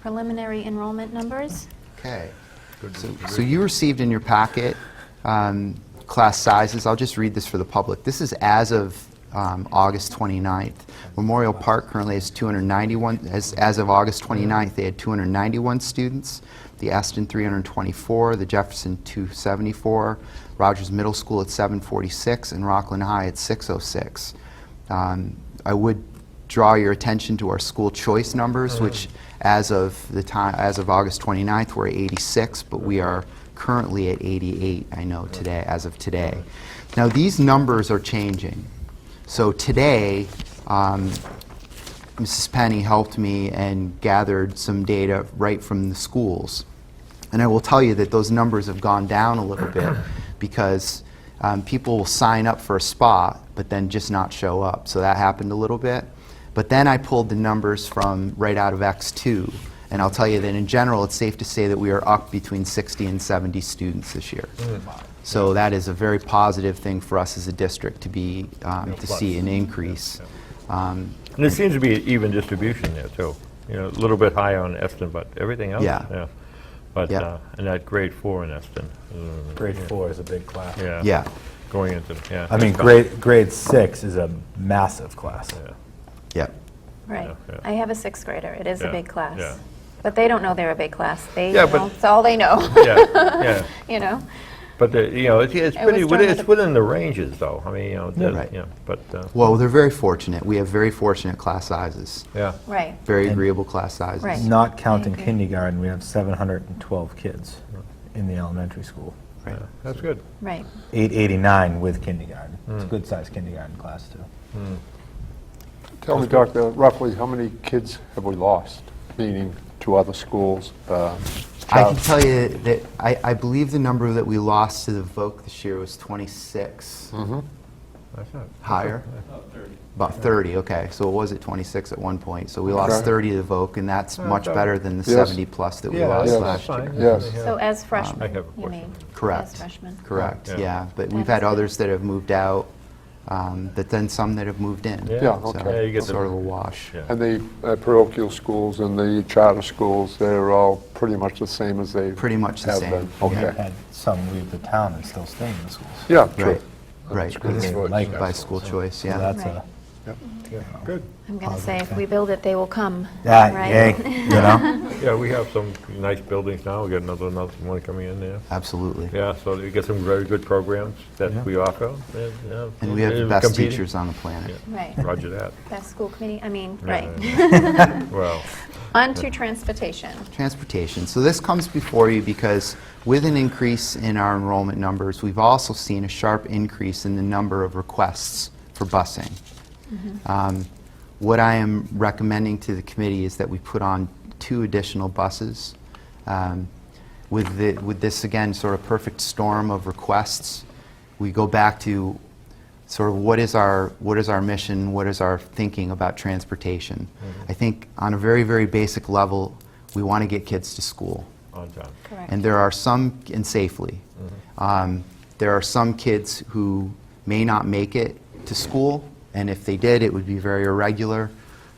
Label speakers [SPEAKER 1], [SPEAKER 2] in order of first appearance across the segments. [SPEAKER 1] preliminary enrollment numbers.
[SPEAKER 2] Okay. So- So you received in your packet um, class sizes. I'll just read this for the public. This is as of um, August 29th. Memorial Park currently has 291, as as of August 29th, they had 291 students. The Aston 324, the Jefferson 274, Rogers Middle School at 746, and Rockland High at 606. Um, I would draw your attention to our school choice numbers, which as of the time, as of August 29th, we're at 86, but we are currently at 88, I know today, as of today. Now, these numbers are changing. So today, um, Mrs. Penny helped me and gathered some data right from the schools. And I will tell you that those numbers have gone down a little bit because um, people will sign up for a spot but then just not show up. So that happened a little bit. But then I pulled the numbers from right out of X2. And I'll tell you that in general, it's safe to say that we are up between 60 and 70 students this year. So that is a very positive thing for us as a district to be, um, to see an increase. Um,
[SPEAKER 3] And it seems to be an even distribution there, too. You know, a little bit high on Eston, but everything else,
[SPEAKER 2] Yeah.
[SPEAKER 3] yeah. But,
[SPEAKER 2] Yeah.
[SPEAKER 3] uh, and that grade four in Eston, mm,
[SPEAKER 4] Grade four is a big class.
[SPEAKER 3] yeah.
[SPEAKER 2] Yeah.
[SPEAKER 3] Going into, yeah.
[SPEAKER 4] I mean, grade, grade six is a massive class.
[SPEAKER 3] Yeah.
[SPEAKER 2] Yeah.
[SPEAKER 1] Right.
[SPEAKER 3] Yeah, yeah.
[SPEAKER 1] I have a sixth grader. It is
[SPEAKER 3] Yeah,
[SPEAKER 1] a big class.
[SPEAKER 3] yeah.
[SPEAKER 1] But they don't know they're a big class. They
[SPEAKER 3] Yeah,
[SPEAKER 1] know,
[SPEAKER 3] but-
[SPEAKER 1] it's all they know,
[SPEAKER 3] Yeah, yeah.
[SPEAKER 1] you know?
[SPEAKER 3] But, the- you know, it's- it's
[SPEAKER 1] It
[SPEAKER 3] pretty,
[SPEAKER 1] was
[SPEAKER 3] within-
[SPEAKER 1] during
[SPEAKER 3] it's
[SPEAKER 1] the-
[SPEAKER 3] within the ranges, though. I mean, you know,
[SPEAKER 2] Yeah.
[SPEAKER 3] the-
[SPEAKER 2] Right.
[SPEAKER 3] yeah, but, uh,
[SPEAKER 2] Well, they're very fortunate. We have very fortunate class sizes,
[SPEAKER 3] yeah.
[SPEAKER 1] Right.
[SPEAKER 2] very agreeable class sizes.
[SPEAKER 1] Right.
[SPEAKER 4] Not counting
[SPEAKER 1] agree.
[SPEAKER 4] kindergarten, we have 712 kids in the elementary school.
[SPEAKER 2] Right.
[SPEAKER 3] yeah, That's good.
[SPEAKER 1] Right.
[SPEAKER 4] 889 with kindergarten. It's
[SPEAKER 5] Hmm.
[SPEAKER 4] a good-sized kindergarten class, too.
[SPEAKER 3] Hmm.
[SPEAKER 5] Tell me, Doctor, roughly how many kids have we lost, meaning to other schools? uh,
[SPEAKER 2] I can
[SPEAKER 5] child-
[SPEAKER 2] tell you that I, I believe the number that we lost to the Voc this year was 26.
[SPEAKER 3] That's not-
[SPEAKER 2] Higher? About 30, okay. So it was at 26 at one point. So we lost
[SPEAKER 5] Okay.
[SPEAKER 2] 30 to the Voc, and that's
[SPEAKER 3] Oh,
[SPEAKER 2] much
[SPEAKER 3] okay.
[SPEAKER 2] better than the
[SPEAKER 5] Yes.
[SPEAKER 2] 70 plus that we
[SPEAKER 3] Yeah,
[SPEAKER 2] lost
[SPEAKER 3] that's
[SPEAKER 5] yeah,
[SPEAKER 2] last year.
[SPEAKER 3] fine.
[SPEAKER 5] Yes.
[SPEAKER 3] Yeah. Um,
[SPEAKER 1] So uh, as freshmen,
[SPEAKER 3] I have a
[SPEAKER 1] you
[SPEAKER 3] question.
[SPEAKER 1] mean? As
[SPEAKER 2] Correct.
[SPEAKER 1] freshmen.
[SPEAKER 2] Correct,
[SPEAKER 3] Yeah.
[SPEAKER 2] yeah. But
[SPEAKER 1] That
[SPEAKER 2] we've had
[SPEAKER 1] is good.
[SPEAKER 2] others that have moved out, um, but then some that have moved in.
[SPEAKER 3] Yeah.
[SPEAKER 5] Yeah,
[SPEAKER 2] So
[SPEAKER 5] okay. Yeah,
[SPEAKER 3] you get the-
[SPEAKER 2] Sort of a wash.
[SPEAKER 3] Yeah.
[SPEAKER 5] And the uh, parochial schools and the charter schools, they're all pretty much the same as they
[SPEAKER 2] Pretty much the
[SPEAKER 5] have
[SPEAKER 2] same,
[SPEAKER 5] been?
[SPEAKER 2] yeah.
[SPEAKER 4] We've
[SPEAKER 5] Okay.
[SPEAKER 4] had some leave the town and still stay in the schools.
[SPEAKER 5] Yeah, true.
[SPEAKER 2] Right, right.
[SPEAKER 5] good.
[SPEAKER 4] They
[SPEAKER 5] Choice.
[SPEAKER 4] like
[SPEAKER 2] By
[SPEAKER 4] us.
[SPEAKER 2] school choice,
[SPEAKER 4] So
[SPEAKER 2] yeah.
[SPEAKER 4] that's a,
[SPEAKER 3] Good.
[SPEAKER 1] I'm going to say, if we build it, they will come.
[SPEAKER 4] that,
[SPEAKER 1] Right.
[SPEAKER 4] hey, you know?
[SPEAKER 3] Yeah, we have some nice buildings now. We got another, another one coming in there.
[SPEAKER 2] Absolutely.
[SPEAKER 3] Yeah, so we get some very good programs that we offer. and, uh,
[SPEAKER 2] And we have the
[SPEAKER 3] and
[SPEAKER 2] best
[SPEAKER 3] competing.
[SPEAKER 2] teachers on the planet.
[SPEAKER 1] Right.
[SPEAKER 3] Roger that.
[SPEAKER 1] Best school committee, I mean,
[SPEAKER 3] Yeah,
[SPEAKER 1] right.
[SPEAKER 3] yeah, yeah. Well,
[SPEAKER 1] On to transportation.
[SPEAKER 2] Transportation. So this comes before you because with an increase in our enrollment numbers, we've also seen a sharp increase in the number of requests for busing. Um, What I am recommending to the committee is that we put on two additional buses. Um, With the, with this, again, sort of perfect storm of requests, we go back to sort of what is our what is our mission what is our thinking about transportation i think on a very very basic level we want to get kids to school
[SPEAKER 3] on time.
[SPEAKER 1] Correct.
[SPEAKER 2] and there are some and safely um, there are some kids who may not make it to school and if they did it would be very irregular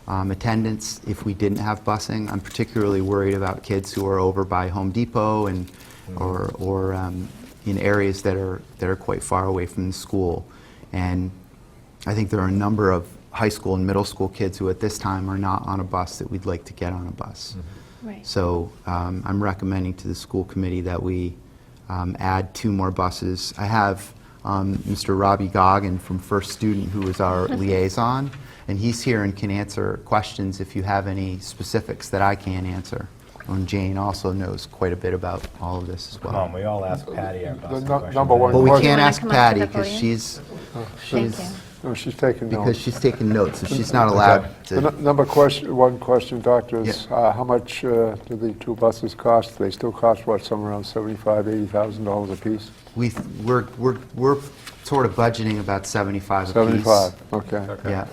[SPEAKER 2] um, attendance if we didn't have busing i'm particularly worried about kids who are over by home depot and or, or um, in areas that are that are quite far away from the school and I think there are a number of high school and middle school kids who at this time are not on a bus that we'd like to get on a bus.
[SPEAKER 1] Right.
[SPEAKER 2] So um, I'm recommending to the school committee that we um, add two more buses. I have um, Mr. Robbie Goggin from First Student, who is our liaison, and he's here and can answer questions if you have any specifics that I can't answer. And Jane also knows quite a bit about all of this as well.
[SPEAKER 4] Come on, we all ask Patty our
[SPEAKER 5] The
[SPEAKER 4] bus
[SPEAKER 5] nu- number one
[SPEAKER 2] But we
[SPEAKER 5] question-
[SPEAKER 2] can't
[SPEAKER 1] wanna
[SPEAKER 2] ask
[SPEAKER 1] come up to
[SPEAKER 2] Patty
[SPEAKER 1] the
[SPEAKER 2] because
[SPEAKER 1] podium? Oh,
[SPEAKER 2] she's,
[SPEAKER 1] Thank
[SPEAKER 2] she's,
[SPEAKER 1] you.
[SPEAKER 5] No, Oh, she's taking
[SPEAKER 2] because
[SPEAKER 5] notes.
[SPEAKER 2] she's taking notes, so she's not allowed
[SPEAKER 5] The
[SPEAKER 2] to.
[SPEAKER 5] nu- number question, one question, Doctor, is uh, how much uh, do the two buses cost? They still cost, what, somewhere around seventy-five, eighty thousand dollars apiece?
[SPEAKER 2] We, th- we're, we're, we're sort of budgeting about 75 apiece.
[SPEAKER 5] Seventy-five, okay.
[SPEAKER 2] Yeah.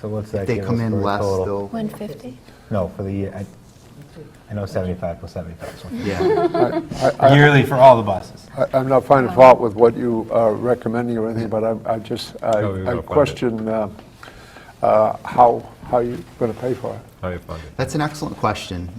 [SPEAKER 4] So what's that
[SPEAKER 2] They
[SPEAKER 4] give us
[SPEAKER 2] come in
[SPEAKER 4] for a
[SPEAKER 2] less,
[SPEAKER 4] total?
[SPEAKER 2] they'll,
[SPEAKER 1] 150?
[SPEAKER 4] No, for the year, I, I know 75 plus 75 is one.
[SPEAKER 2] yeah.
[SPEAKER 4] Yearly for all the buses.
[SPEAKER 5] I- I'm not finding fault with what you are recommending or anything, but I'm- I just,
[SPEAKER 3] No,
[SPEAKER 5] I
[SPEAKER 3] you're
[SPEAKER 5] I
[SPEAKER 3] not finding it.
[SPEAKER 5] question uh, uh, how, how you're going to pay for it.
[SPEAKER 3] How you fund it?
[SPEAKER 2] That's an excellent question.